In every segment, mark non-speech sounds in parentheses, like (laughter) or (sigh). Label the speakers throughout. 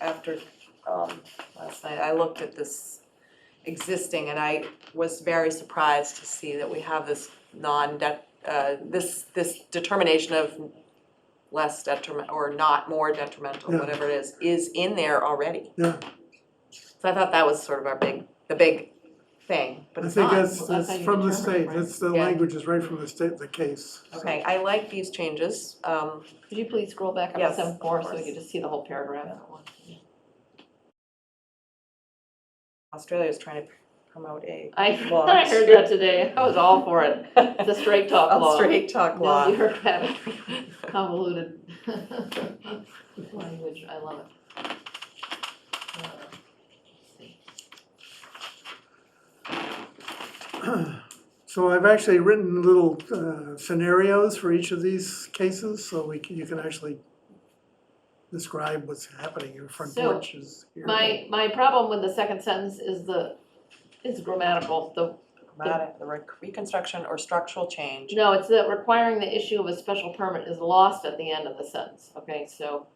Speaker 1: after, um, last night, I looked at this existing and I was very surprised to see that we have this non-det, uh, this, this determination of less detriment, or not more detrimental,
Speaker 2: Yeah.
Speaker 1: whatever it is, is in there already.
Speaker 2: Yeah.
Speaker 1: So I thought that was sort of our big, the big thing, but
Speaker 2: I
Speaker 1: it's
Speaker 2: think
Speaker 1: not.
Speaker 2: that's,
Speaker 3: Well, that's
Speaker 2: that's
Speaker 3: how you
Speaker 2: from the
Speaker 3: determine it,
Speaker 2: state,
Speaker 3: right?
Speaker 2: that's, the
Speaker 1: Yeah.
Speaker 2: language is right from the state, the case. so.
Speaker 1: Okay, I like these changes, um,
Speaker 3: Could you please scroll back up to
Speaker 1: Yes,
Speaker 3: seven
Speaker 1: of
Speaker 3: four so we
Speaker 1: course.
Speaker 3: can just see the whole paragraph?
Speaker 1: Australia's trying to promote a
Speaker 3: I,
Speaker 1: Well,
Speaker 3: I heard that today, I was all for it, (laughs) the
Speaker 1: (laughs)
Speaker 3: straight talk law.
Speaker 1: straight talk
Speaker 3: No
Speaker 1: law.
Speaker 3: bureaucratic, (laughs) convoluted (laughs) language, I love it. Uh, let's see.
Speaker 2: So I've actually written little uh, scenarios for each of these cases, so we can, you can actually describe what's happening in front
Speaker 3: So,
Speaker 2: porches here.
Speaker 3: My, my problem with the second sentence is the, is grammatical, the
Speaker 1: Dramatic, the rec- reconstruction or structural change.
Speaker 3: No, it's that requiring the issue of a special permit is lost at the end of the sentence, okay, so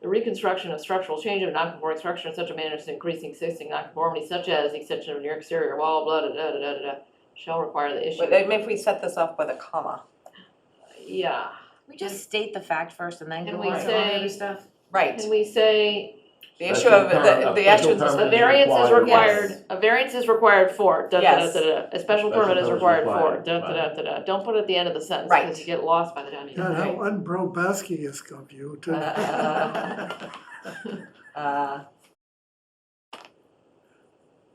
Speaker 3: the reconstruction of structural change of non-conforming structure in such a manner as to increase the existing nonconformity such as the extension of near exterior wall, blah, da, da, da, da, da, da, shall require the issue.
Speaker 1: But I mean, if we set this off with a comma,
Speaker 3: Yeah,
Speaker 4: We just state the fact first and then
Speaker 3: And
Speaker 4: go
Speaker 3: we
Speaker 4: on to all the
Speaker 3: say-
Speaker 4: other stuff.
Speaker 1: right,
Speaker 3: can we say,
Speaker 1: the issue of, the, the actions
Speaker 5: Special
Speaker 3: a
Speaker 5: permit.
Speaker 1: is,
Speaker 3: variance is
Speaker 1: required.
Speaker 3: required, a variance is required for, da, da, da, da, da, a special
Speaker 5: Special
Speaker 3: permit is
Speaker 5: permit is
Speaker 3: required for,
Speaker 5: required,
Speaker 3: da, da, da, da, da, don't put it at the end of the sentence,
Speaker 1: Right.
Speaker 3: because you get lost by the time you.
Speaker 2: God, how unprobowski is of you to.
Speaker 1: Uh, uh,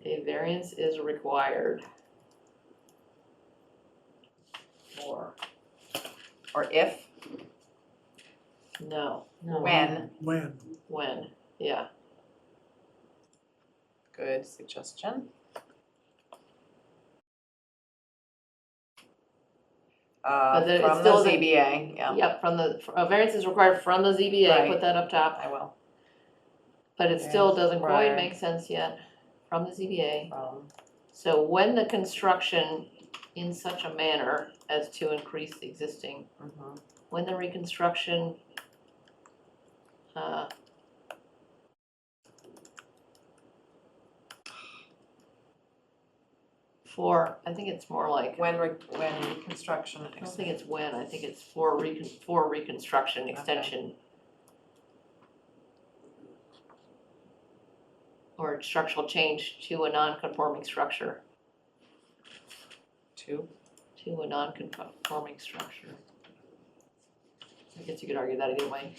Speaker 3: A variance is required. Or,
Speaker 1: or if,
Speaker 3: no, no.
Speaker 1: when,
Speaker 2: (laughs) When,
Speaker 3: When, yeah,
Speaker 1: good suggestion. Uh,
Speaker 3: But then it
Speaker 1: from the
Speaker 3: still doesn't-
Speaker 1: ZBA, yeah,
Speaker 3: yep, from the, a variance is required from the ZBA,
Speaker 1: Right.
Speaker 3: put that up top,
Speaker 1: I will,
Speaker 3: but it still
Speaker 1: Variance
Speaker 3: doesn't quite
Speaker 1: required.
Speaker 3: make sense yet, from the ZBA.
Speaker 1: um,
Speaker 3: So when the construction in such a manner as to increase the existing,
Speaker 1: mhm.
Speaker 3: when the reconstruction, uh, for, I think it's more like
Speaker 1: when, re- when reconstruction.
Speaker 3: I don't think it's when, I think it's for recon, for reconstruction, extension. Or structural change to a non-conforming structure,
Speaker 1: Two,
Speaker 3: to a non-conforming structure. I guess you could argue that either way,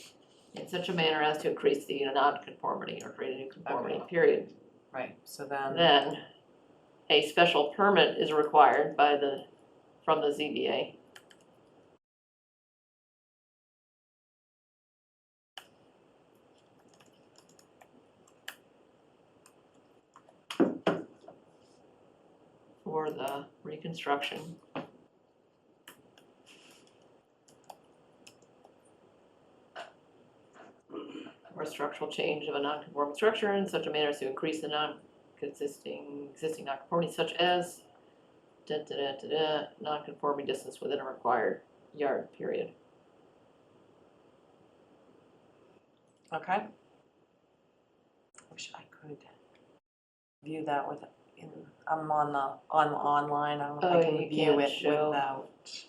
Speaker 3: in such a manner as to increase the non-conformity or create a new conformity,
Speaker 1: Okay.
Speaker 3: period.
Speaker 1: right, so then,
Speaker 3: Then, a special permit is required by the, from the ZBA. For the reconstruction. Or structural change of a non-conforming structure in such a manner as to increase the non, consisting, existing nonconformity such as da da da da da, nonconforming distance within a required yard, period.
Speaker 1: okay. Wish I could view that with, in- I'm on the, on online, I don't know
Speaker 3: Oh,
Speaker 1: if I can
Speaker 3: you
Speaker 1: view it
Speaker 3: can't
Speaker 1: without.
Speaker 3: show.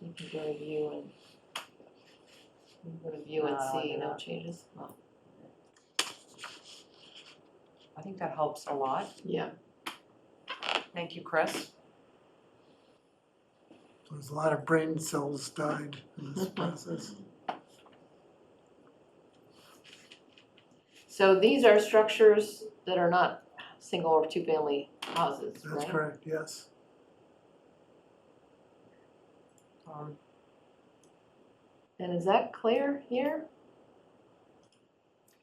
Speaker 3: You can go to view and you can go to view and
Speaker 1: No,
Speaker 3: see,
Speaker 1: they're
Speaker 3: no
Speaker 1: not.
Speaker 3: changes, well,
Speaker 1: I think that helps a lot.
Speaker 3: yeah,
Speaker 1: Thank you, Chris.
Speaker 2: there's a lot of brain cells died in this process.
Speaker 3: so these are structures that are not single or two-family houses, right?
Speaker 2: That's correct, yes.
Speaker 1: Um,
Speaker 3: And is that clear here?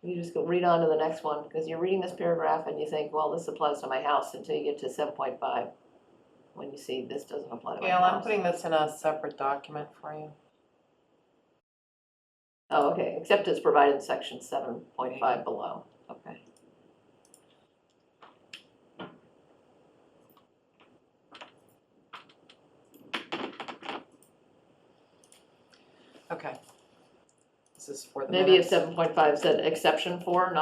Speaker 3: You just go read on to the next one, because you're reading this paragraph and you think, well, this applies to my house until you get to seven point five. When you see this doesn't apply to my
Speaker 1: Gail,
Speaker 3: house.
Speaker 1: I'm putting this in a separate document for you.
Speaker 3: Oh, okay, except it's provided in section seven point five below, okay.
Speaker 1: Okay. This is for the
Speaker 3: Maybe
Speaker 1: minutes.
Speaker 3: if seven point five said exception for, not